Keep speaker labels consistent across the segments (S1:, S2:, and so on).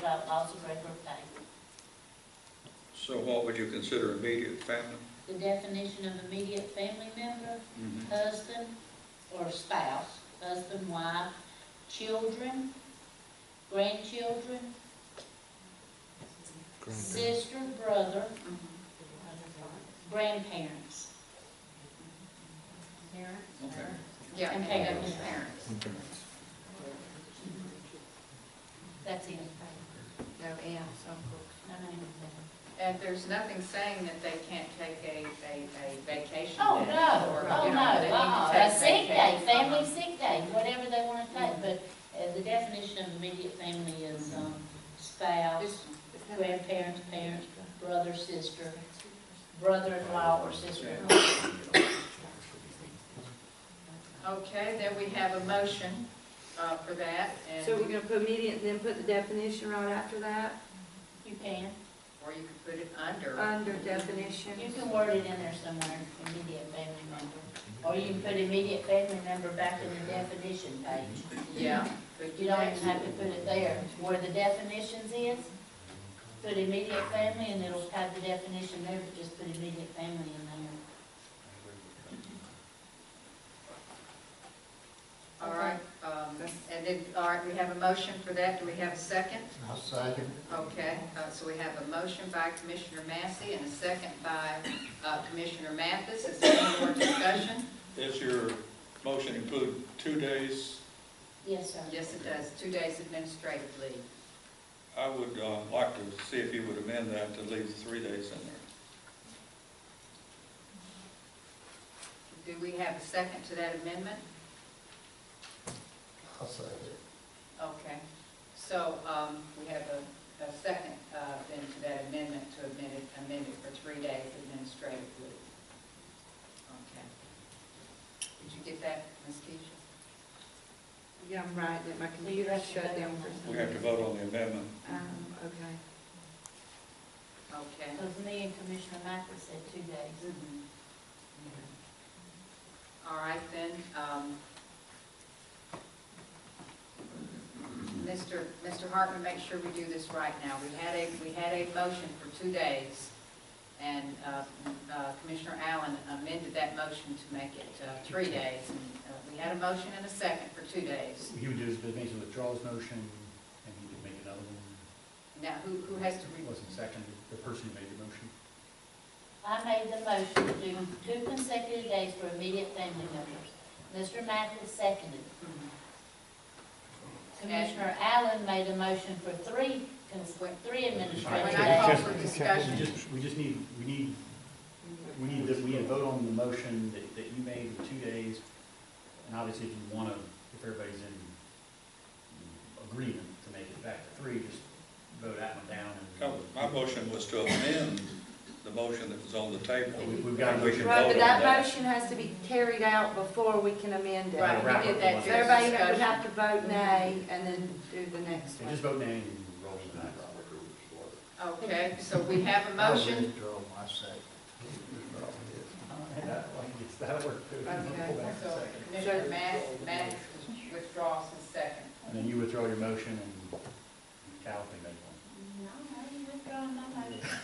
S1: that allows a regular pay.
S2: So what would you consider immediate family?
S1: The definition of immediate family member,
S3: Mm-hmm.
S1: husband or spouse, husband, wife, children, grandchildren, sister, brother, grandparents.
S2: Okay.
S4: Yeah,
S1: And
S4: parents.
S1: parents. That's it.
S4: No M's,
S1: No, no, no.
S4: And there's nothing saying that they can't take a, a, a vacation.
S1: Oh,
S4: day
S1: no,
S4: or,
S1: oh,
S4: you
S1: no,
S4: know, they need to
S1: uh-uh,
S4: take
S1: a sick day,
S4: vacation.
S1: family sick day, whatever they wanna take, but, uh, the definition of immediate family is, um, spouse,
S4: Just-
S1: grandparents, parents, brother, sister, brother-in-law or sister-in-law.
S4: Okay, then we have a motion, uh, for that, and,
S5: So we're gonna put immediate, and then put the definition right after that,
S1: You can,
S4: or you could put it under.
S5: under definition.
S1: you can word it in there somewhere, immediate family member, or you can put immediate family member back in the definition page.
S4: Yeah. could
S1: You don't even have to put it there, where the definitions is, put immediate family and it'll have the definition there, but just put immediate family in there.
S4: All right, um, and then, all right, we have a motion for that, do we have a second?
S6: I'll second.
S4: Okay, uh, so we have a motion by Commissioner Massey and a second by uh, Commissioner Mathis. Is there any more discussion?
S3: Does your motion include two days?
S1: Yes, sir.
S4: Yes, it does, two days administrative leave.
S3: I would uh, like to see if you would amend that to leave three days in there.
S4: Do we have a second to that amendment?
S6: I'll second.
S4: Okay, so um, we have a a second uh, then to that amendment to amend it, amend it for three days administrative leave. Okay. Did you get that, Ms. Keisha?
S5: Yeah, I'm right, that my computer shut down for
S3: We
S5: some.
S3: have to vote on the amendment.
S5: Um, okay.
S4: Okay.
S1: Because me and Commissioner Mathis said two days.
S4: All right, then, um, Mr. Mr. Hartman, make sure we do this right now. We had a, we had a motion for two days, and uh, uh, Commissioner Allen amended that motion to make it uh, three days. And, uh, We had a motion and a second for two days.
S7: He would do his, basically withdraw his motion, and he would make another one.
S4: Now, who, who has to
S7: It
S4: read?
S7: wasn't seconded, the person who made the motion.
S1: I made the motion to do two consecutive days for immediate family members. Mr. Mathis seconded. Commissioner Allen made a motion for three, cons- three administrative
S4: When I call
S1: days.
S4: for
S7: We
S4: discussion,
S7: just, we just need, we need, we need, that we need to vote on the motion that, that you made in two days. And obviously, if you want to, if everybody's in agreement to make it back to three, just vote that one down
S3: No, Oh, My
S7: and.
S3: motion was to amend the motion that was on the table.
S7: We- We've got. a
S3: We can
S7: motion.
S5: Right,
S3: vote
S5: but
S3: on
S5: that
S3: that.
S5: motion has to be carried out before we can amend it.
S4: right, we did that.
S5: So
S4: during
S5: everybody would
S4: discussion.
S5: have to vote nay and then do the next
S7: So Just
S5: one.
S7: vote nay and roll the dice.
S4: Okay, so we have a motion.
S6: I'll withdraw my second.
S7: That'll work too.
S4: Okay,
S7: Pull back a
S4: so
S7: second.
S4: Commissioner Matt, Matt withdraws his second.
S7: And then you withdraw your motion and Cal can make one.
S1: No, I ain't withdrawing my motion.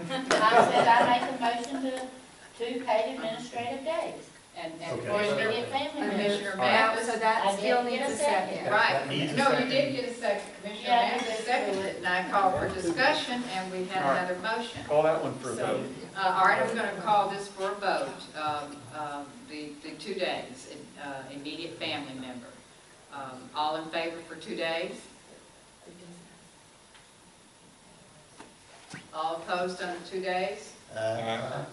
S1: I said I make a motion to, two paid administrative days
S4: And, and
S7: Okay.
S1: for
S4: Commissioner,
S1: immediate family members.
S4: Commissioner
S5: Now, so
S4: Mathis,
S5: that
S1: I
S5: still
S1: did get
S5: needs
S1: a
S5: a
S1: second.
S5: second.
S7: That
S4: right,
S7: needs a
S4: no, you
S7: second.
S4: did get a second, Commissioner
S1: Yeah, I
S4: Mathis
S1: did.
S4: seconded it, and I called for discussion, and we had
S7: All right.
S4: another motion.
S7: Call that one for a
S4: So-
S7: vote.
S4: Uh, all right, I'm gonna call this for a vote, um, um, the, the two days, uh, immediate family member. Um, all in favor for two days? All opposed on the two days?
S6: Uh,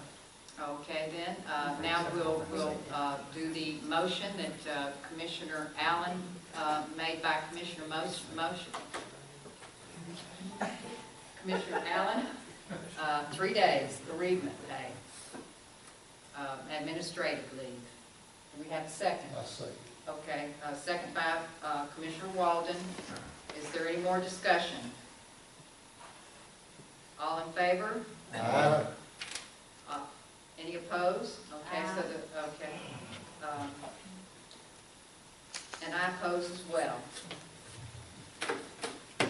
S4: Okay, then, uh, now we'll, we'll uh, do the motion that uh, Commissioner Allen uh, made by Commissioner Mos- Motion. Commissioner Allen, uh, three days, bereavement day, um, administrative leave. Do we have a second?
S6: I'll second.
S4: Okay, uh, second by uh, Commissioner Walden. Is there any more discussion? All in favor?
S6: Uh,
S4: Uh, Any opposed? Okay, so
S1: Aye.
S4: the, okay. Um, And I oppose as well.